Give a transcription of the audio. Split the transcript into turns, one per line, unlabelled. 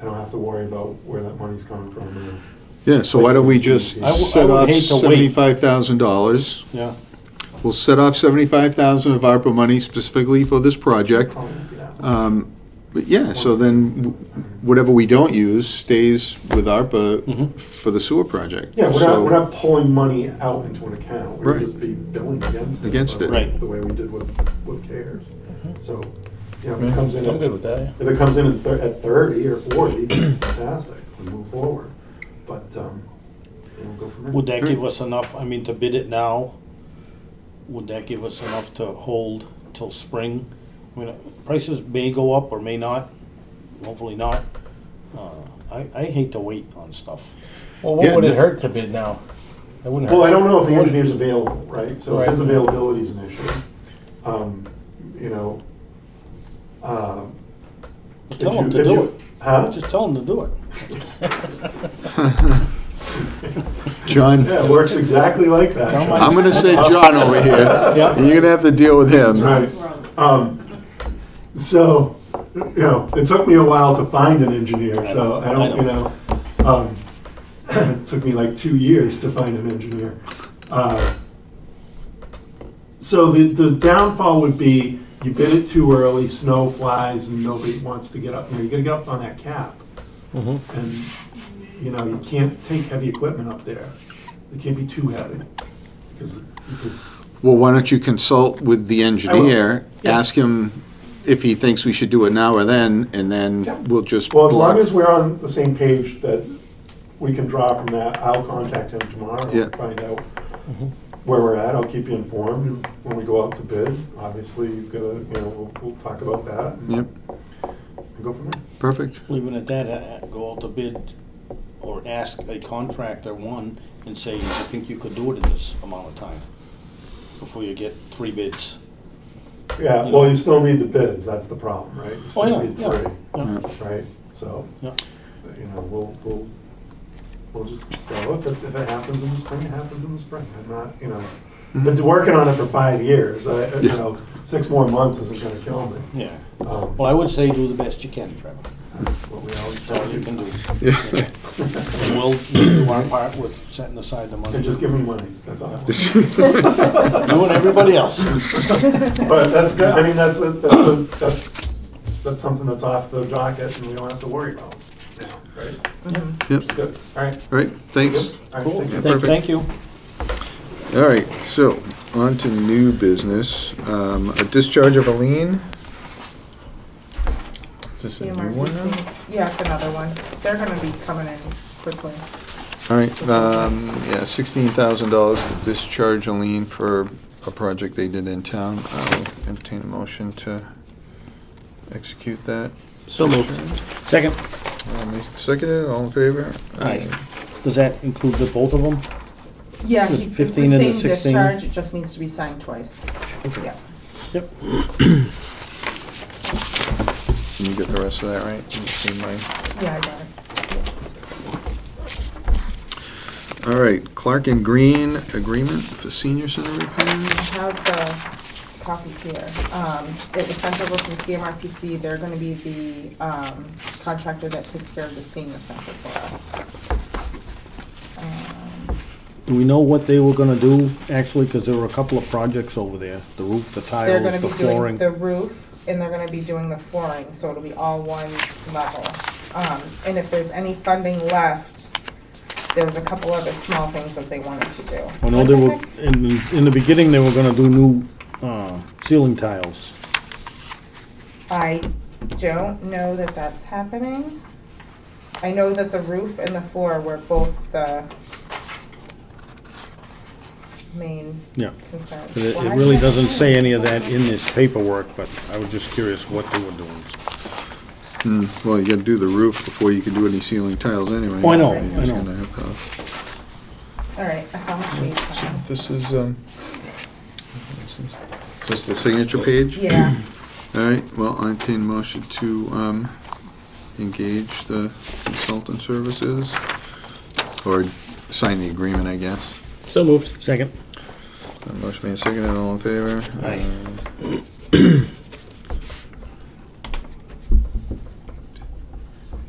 I don't have to worry about where that money's coming from. or-
Yeah, so why don't we just
I
w- I
set
would
off
hate to wait.
seventy-five thousand dollars?
Yeah.
We'll set off seventy-five thousand of ARPA money specifically for this project. Um, But yeah, so then w- whatever we don't use stays with ARPA
Mm-hmm.
Mhm.
for the sewer project.
Yeah, we're
So-
not, we're not pulling money out into an account. We would
Right.
just be billing against it.
Against it.
Right.
The way we did with, with CARES. So, you know, if
Mm-hmm. Yeah,
it comes in,
I'm
at-
good with that, yeah.
if it comes in at thir- at thirty or forty, fantastic, we move forward. But, um, you know, go from there.
Would that give us enough, I mean, to bid it now, would that give us enough to hold till spring? I mean, prices may go up or may not, hopefully not. Uh, I, I hate to wait on stuff.
Well,
Yeah,
what would
no-
it hurt to bid now? It wouldn't hurt.
Well, I don't know if the engineer's available, right? So his
Right.
availability is an issue. Um, You know, um. if
Tell him
you-
to
if
do
you-
it.
Huh?
Just tell them to do it.
John,
Yeah, it works exactly like that.
Don't mind-
I'm gonna say John over here.
Yeah.
You're gonna have to deal with him.
Right. Um, So, you know, it took me a while to find an engineer, so I don't, you know, um, it took me like two years to find an engineer. Uh, So the, the downfall would be you bid it too early, snow flies and nobody wants to get up, you know, you gotta get up on that cap.
Mhm.
And, you know, you can't take heavy equipment up there. It can't be too heavy because, because
Well, why don't you consult with the engineer?
Yeah.
Ask him if he thinks we should do it now or then, and
Yeah.
then we'll just
Well, as long
block.
as we're on the same page that we can draw from that, I'll contact him tomorrow
Yeah.
and find out where we're at. I'll keep you informed And when we go out to bid. Obviously, you've got to, you know, we'll, we'll talk about that and
Yep,
and go from there.
perfect.
Leaving it at that, uh, go out to bid or ask a contractor, one, and say, I think you could do it in this amount of time, before you get three bids.
Yeah, well, you still need the bids, that's the problem, right? You
Oh,
still
yeah,
need
yeah,
three,
yeah.
Yeah.
Right, so,
Yeah.
you know, we'll, we'll, we'll just go, if it, if it happens in the spring, it happens in the spring. I'm not, you know, been working on it for five years, I, you
Mm-hmm. Yeah.
know, six more months isn't gonna kill me.
Yeah.
Um,
Well, I would say do the best you can, Trevor.
That's what we always
That's
tell
all you can do.
Yeah.
And we'll do our part with setting aside the money.
And just give me money, that's all.
You and everybody else.
But that's good, I mean, that's, a- that's, a- that's, that's something that's off the docket and we don't have to worry about now, right?
Yep,
It's Good, all right.
all right, thanks.
All right,
Cool.
thank you.
Thank thank you.
All right, so on to new business. Um, a discharge of a lien. Is this a new one
CMRPC.
now?
Yeah, it's another one. They're gonna be coming in quickly.
All right, um, yeah, sixteen thousand dollars to discharge a lien for a project they did in town. I'll entertain a motion to execute that.
So moved. Second,
Um, Seconded, all in favor?
Aye. does that include the both of them?
Yeah,
Just
he- it's the
15 and the
same
16.
discharge, it just needs to be signed twice. Yeah.
Yep.
Can you get the rest of that right? You see mine?
Yeah, I got it.
All right, Clark and Green agreement for senior center
I
repairs?
have the copy here. Um, it was sent over from CMRPC. They're gonna be the, um, contractor that takes care of the senior center for us. Um,
Do we know what they were gonna do, actually, because there were a couple of projects over there, the roof, the
They're gonna
tiles, the
be doing
flooring.
the roof and they're gonna be doing the flooring, so it'll be all one level. Um, and if there's any funding left, there was a couple other small things that they wanted to do.
I know they were, in, in the beginning, they were gonna do new, uh, ceiling tiles.
I don't know that that's happening. I know that the roof and the floor were both the main
Yeah.
concerns.
But It
Why
it really
did I-
doesn't say any of that in this paperwork, but I was just curious what they were doing.
Well, you gotta do the roof before you can do any ceiling tiles anyway.
Oh, I know,
You're
I
just
know.
gonna have those.
All right, I found the sheet.
This is, um, this is- is this the signature page?
Yeah,
All right, well, I entertain a motion to, um, engage the consultant services or sign the agreement, I guess.
So moved. Second.
Uh, Motion made, seconded, all in favor?
Aye.
Uh,